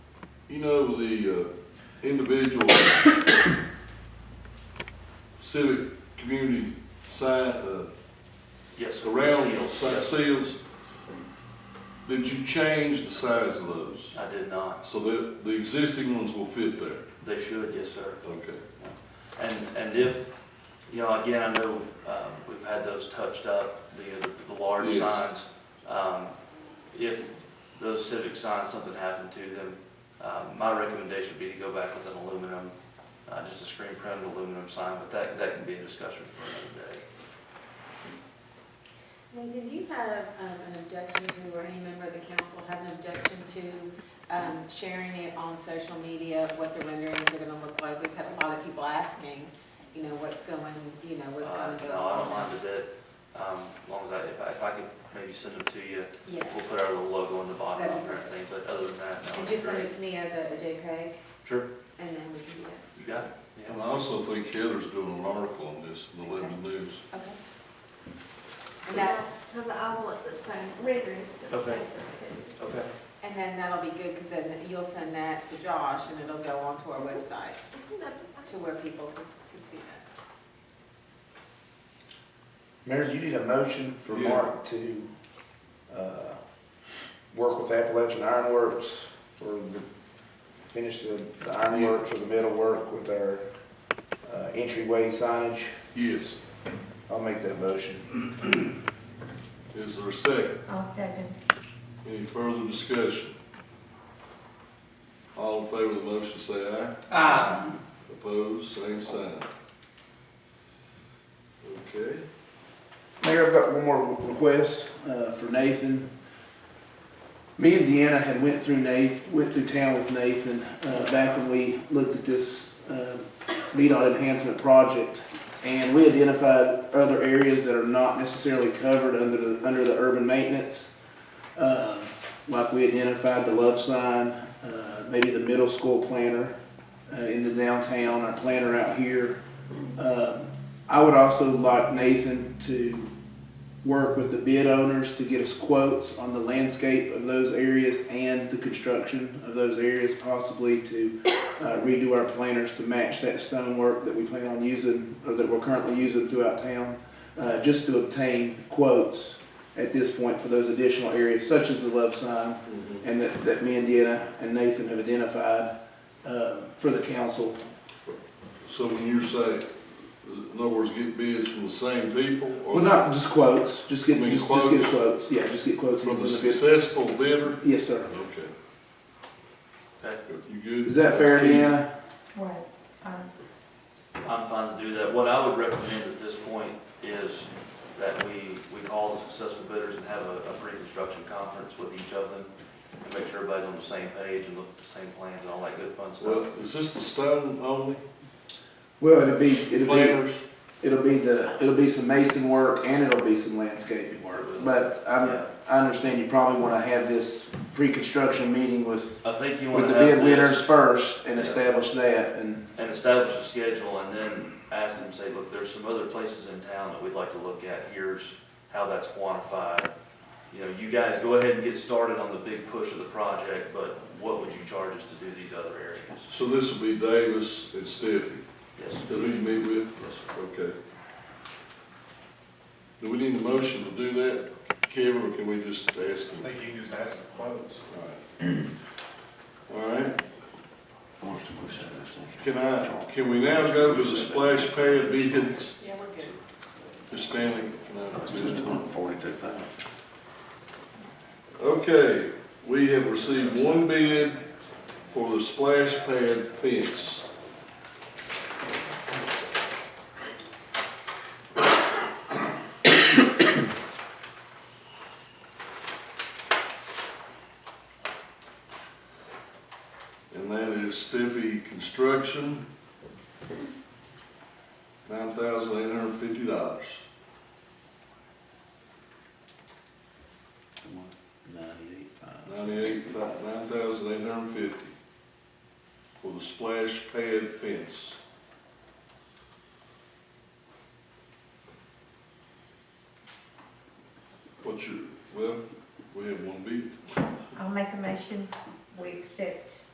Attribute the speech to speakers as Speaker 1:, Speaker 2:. Speaker 1: You know, the uh, individual civic community sign, uh,
Speaker 2: Yes.
Speaker 1: around
Speaker 2: Seals,
Speaker 1: si-
Speaker 2: yes.
Speaker 1: seals, did you change the size of those?
Speaker 2: I did not.
Speaker 1: So that the existing ones will fit there?
Speaker 2: They should, yes, sir.
Speaker 1: Okay.
Speaker 2: And, and if, you know, again, I know, um, we've had those touched up, the, the large
Speaker 1: Yes.
Speaker 2: signs. Um, if those civic signs, something happened to them, um, my recommendation would be to go back with an aluminum, uh, just a screen printed aluminum sign, but that, that can be a discussion for another day.
Speaker 3: Nathan, do you have um, an objection to, or any member of the council have an objection to um, sharing it on social media, what the renderings are going to look like? We've had a lot of people asking, you know, what's going, you know, what's
Speaker 2: Uh,
Speaker 3: going to go
Speaker 2: No, I don't mind
Speaker 3: on.
Speaker 2: a bit, um, as long as I, if I, if I could maybe send them to you,
Speaker 3: Yes,
Speaker 2: we'll put our little logo on the bottom
Speaker 3: That'd
Speaker 2: and
Speaker 3: be
Speaker 2: everything, but other than that, no.
Speaker 3: and
Speaker 2: it's
Speaker 3: just send
Speaker 2: great.
Speaker 3: it to me as a a JPEG,
Speaker 2: Sure,
Speaker 3: and then we can do that.
Speaker 2: you got it, yeah.
Speaker 1: And I also think Heather's doing an article on this in the Lebanon News.
Speaker 3: Okay. And that,
Speaker 4: Because I want the same renderings. to
Speaker 2: Okay.
Speaker 4: make the same.
Speaker 2: Okay.
Speaker 3: and then that'll be good, because then you'll send that to Josh, and it'll go onto our website,
Speaker 4: I think that'd
Speaker 3: to where people can can see that.
Speaker 5: Mayor, you need a motion for
Speaker 1: Yeah.
Speaker 5: Mark to, uh, work with Appalachian Ironworks or the- finish the the ironworks or the metal work with our, uh, entryway signage.
Speaker 1: Yes.
Speaker 5: I'll make that motion.
Speaker 1: Is there a second?
Speaker 4: be- I'll second.
Speaker 1: Any further discussion? All in favor of the motion, say aye.
Speaker 6: Aye.
Speaker 1: Opposed, same sign. Okay,
Speaker 5: Mayor, I've got one more request uh, for Nathan. Me and Deanna had went through Nathan, went through town with Nathan uh, back when we looked at this um, NDOT enhancement project. And we identified other areas that are not necessarily covered under the, under the urban maintenance. Um, Like we identified the love sign, uh, maybe the middle school planner uh, in the downtown, our planner out here. Um, I would also like Nathan to work with the bid owners to get us quotes on the landscape of those areas and the construction of those areas, possibly to uh, redo our planters to match that stonework that we plan on using, or that we're currently using throughout town, uh, just to obtain quotes at this point for those additional areas, such as the love sign, and that, that me and Deanna and Nathan have identified uh, for the council.
Speaker 1: so when you say, in other words, get bids from the same people? or
Speaker 5: Well, not just quotes, just get,
Speaker 1: I mean,
Speaker 5: just just get quotes, yeah, just get quotes.
Speaker 1: From
Speaker 5: and
Speaker 1: the
Speaker 5: the bid-
Speaker 1: successful bidder?
Speaker 5: Yes, sir.
Speaker 1: Okay.
Speaker 2: Okay.
Speaker 1: You good?
Speaker 5: Is that fair,
Speaker 1: That's key.
Speaker 5: Deanna?
Speaker 4: Right, fine.
Speaker 2: I'm fine to do that. What I would recommend at this point is that we, we call the successful bidders and have a, a pre-construction conference with each of them and make sure everybody's on the same page and look at the same plans and all that good fun
Speaker 1: Well,
Speaker 2: stuff.
Speaker 1: is this the stone only
Speaker 5: Well, it'll be, it'll be,
Speaker 1: planners?
Speaker 5: it'll be the, it'll be some mason work and it'll be some landscaping work. But
Speaker 2: Yeah.
Speaker 5: I'm, I understand you probably wanna have this pre-construction meeting with,
Speaker 2: I think you
Speaker 5: with
Speaker 2: want
Speaker 5: the
Speaker 2: to have
Speaker 5: bid winners
Speaker 2: this
Speaker 5: first and
Speaker 2: Yeah.
Speaker 5: establish that and,
Speaker 2: and establish a schedule and then ask them, say, look, there's some other places in town that we'd like to look at. Here's how that's quantified. You know, you guys go ahead and get started on the big push of the project, but what would you charge us to do these other areas?
Speaker 1: So this will be Davis and Steffi,
Speaker 2: Yes,
Speaker 1: is
Speaker 2: yes,
Speaker 1: that who you meet with?
Speaker 2: sir.
Speaker 1: Okay. Do we need a motion to do that, Kevin, or can we just ask him?
Speaker 6: think you can just ask the quotes.
Speaker 1: All right. Can I, can we now go to the splash pad bids?
Speaker 3: Yeah, we're good.
Speaker 1: Ms. Stanley, can I do this?
Speaker 7: Forty-two thousand.
Speaker 1: Okay, we have received one bid for the splash pad fence. And that is Stiffy Construction, nine thousand eight hundred and fifty dollars.
Speaker 7: Ninety-eight five.
Speaker 1: Ninety-eight, nine thousand eight hundred and fifty for the splash pad fence. What's your, well, we have one bid.
Speaker 4: I'll make a motion, we accept